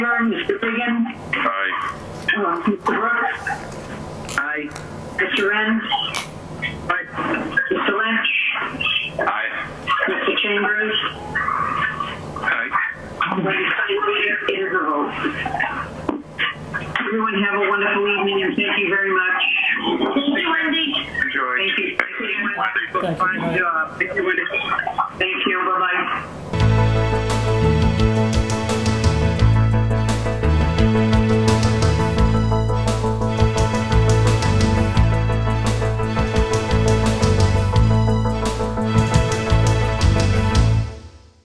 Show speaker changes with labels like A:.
A: Horn, Mr. Reagan,
B: Aye.
A: uh, Mr. Brooks,
C: Aye.
A: Mr. Renz, Mr. Lynch,
B: Aye.
A: Mr. Chambers,
B: Aye.
A: Lady Sunny, it is a vote. Everyone have a wonderful evening and thank you very much.
D: Thank you, Wendy.
B: Enjoy.
A: Thank you. Thank you.
C: Fine job. Thank you, Wendy.